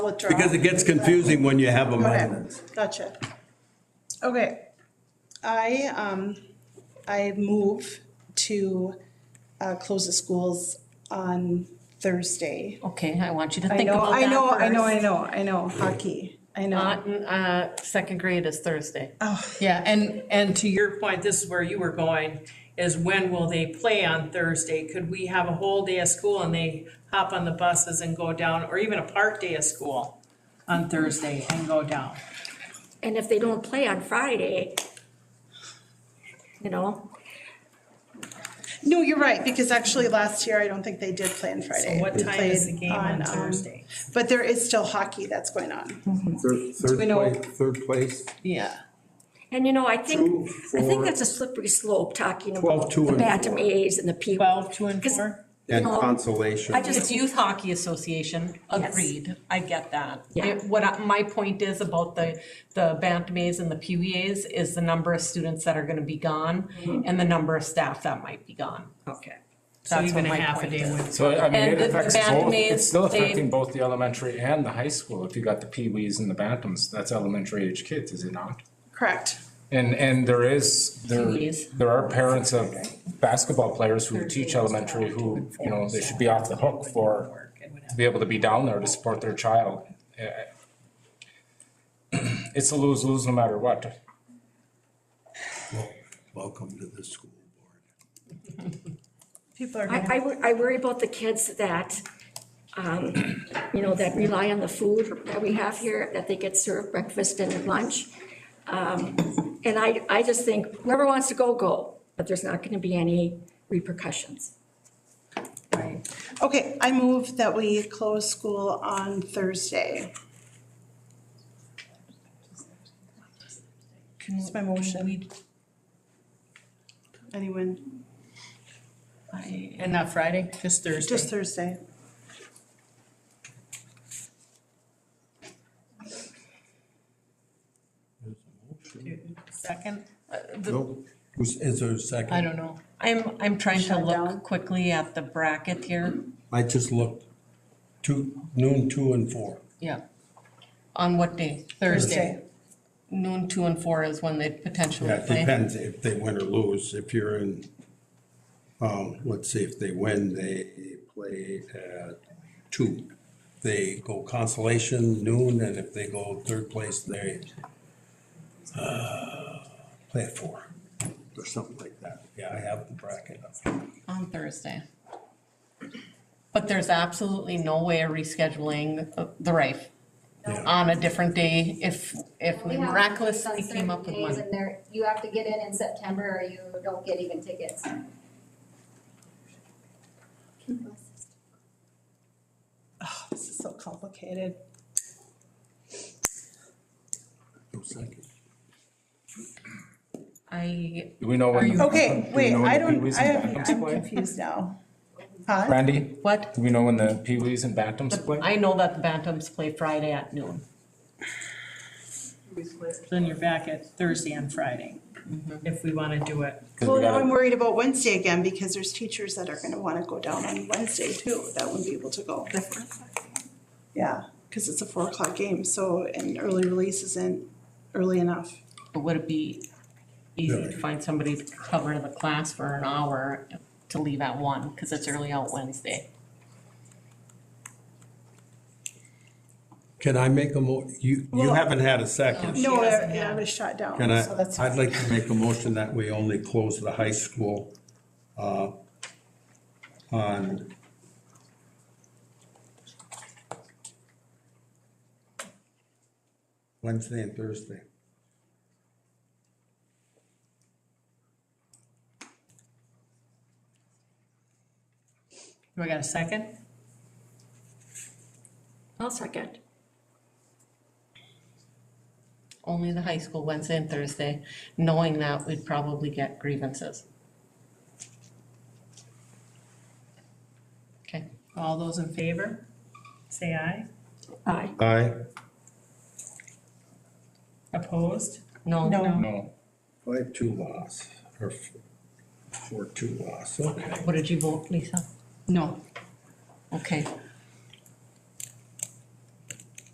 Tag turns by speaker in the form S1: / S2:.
S1: withdraw.
S2: Because it gets confusing when you have
S1: Okay,
S2: amendments.
S1: gotcha. Okay. I, um, I move to, uh, close the schools on Thursday.
S3: Okay, I want you to
S1: I
S3: think
S1: know,
S3: about that
S1: I know, I know, I
S3: first.
S1: know, I know, hockey, I Oh, know.
S3: Not in, uh, second grade is Thursday.
S4: Yeah, and, and to your point, this is where you were going, is when will they play on Thursday? Could we have a whole day of school and they hop on the buses and go down, or even a part day of school on Thursday and go down?
S5: And if they don't play on Friday, you know,
S1: No, you're right, because actually last year, I don't think they did play on Friday.
S4: So what
S1: We
S4: time is the
S1: played
S4: game on
S1: um,
S4: Thursday?
S1: But there is still hockey that's going on.
S6: Third,
S1: we
S6: third
S1: know-
S6: place, third place,
S4: Yeah.
S5: and you know, I
S6: Two,
S5: think, I
S6: four,
S5: think that's a slippery slope talking
S6: twelve,
S5: about
S6: two,
S5: the
S6: and
S5: Bantam
S6: four.
S5: A's and the P.
S4: Twelve, two and
S5: 'Cause
S4: four?
S6: and
S5: No.
S6: consolation.
S5: I
S3: It's
S5: just,
S3: Youth Hockey Association, agreed, I get that.
S5: Yeah.
S3: It- What, I- my point is about the, the Bantamese and the PWAs is the number of students that are gonna be gone and the number of staff that might be gone.
S4: Okay. So
S3: That's what
S4: even a
S3: my
S4: half a
S3: point
S4: day
S3: is.
S4: would.
S7: So I mean,
S3: And
S7: it
S3: the-
S7: affects
S3: the
S7: both,
S3: Bantamese,
S7: it's still
S3: they-
S7: affecting both the elementary and the high school, if you got the peewees and the bantams, that's elementary age kids, is it not?
S1: Correct.
S7: And, and there is, there,
S3: Peewees.
S7: there are parents of basketball players who teach elementary who, you know, they should be off the hook for, to be able to be down there to support their child. Eh, It's a lose-lose no matter what.
S2: Welcome to the school board.
S1: People are
S5: I,
S1: going
S5: I wor- I worry about the kids that, um, you know, that rely on the food that we have here, that they get served breakfast and lunch. Um, And I, I just think whoever wants to go, go, but there's not gonna be any repercussions.
S1: Okay, I move that we close school on Thursday. That's my motion. Anyone,
S4: And not Friday, just Thursday?
S1: just Thursday.
S4: Second?
S2: Nope. Who's- Is there a second?
S4: I don't know.
S3: I'm, I'm trying to
S1: Shut down.
S3: look quickly at the bracket here,
S2: I just looked, two, noon, two and four.
S3: yeah. On what day? Thursday. Noon, two and four is when they'd potentially
S2: Yeah, it
S3: play.
S2: depends if they win or lose. If you're in, um, let's see, if they win, they play at two. They go consolation noon, and if they go third place, they, uh, play at four or something like that. Yeah, I have the bracket up.
S3: On Thursday. But there's absolutely no way of rescheduling uh, the Rife
S2: Yeah.
S3: on a different day if, if we
S8: We have
S3: miraculously
S8: tickets on
S3: came up with
S8: certain days
S3: one.
S8: and they're- you have to get in in September or you don't get even tickets.
S1: This is so complicated.
S2: No second.
S3: I,
S7: Do we know when?
S3: Are
S7: the-
S3: you-
S1: Okay,
S7: do we
S1: wait,
S7: know when
S1: I
S7: the
S1: don't,
S7: Peewees
S1: I,
S7: and
S1: am
S7: Bantams play?
S1: confused now. Huh?
S7: Randy,
S3: what?
S7: do we know when the peewees and bantams play?
S3: I know that the Bantams play Friday at noon.
S4: Then you're back at Thursday and Friday,
S1: Mm-hmm.
S4: if we wanna do it.
S7: 'Cause we
S1: Well, now
S7: gotta-
S1: I'm worried about Wednesday again because there's teachers that are gonna wanna go down on Wednesday too, that wouldn't be able to go. Yeah, cause it's a four o'clock game, so an early release isn't early enough.
S3: But would it be easy to find somebody to cover the class for an hour to leave at one, because it's early out Wednesday?
S2: Can I make a mo, you, you
S1: Well-
S2: haven't had a second.
S1: No,
S4: doesn't
S1: I, I was shut down,
S2: Can I,
S1: so that's.
S2: I'd like to make a motion that we only close the high school, uh, on Wednesday and Thursday.
S4: Do I got a second?
S5: I'll second.
S3: Only the high school Wednesday and Thursday, knowing that we'd probably get grievances. Okay.
S4: All those in favor, say aye.
S5: Aye.
S2: Aye.
S4: Opposed?
S3: No.
S1: No,
S7: No.
S2: Five, two loss, or f- four, two loss, okay.
S3: What did you vote, Lisa? No. Okay,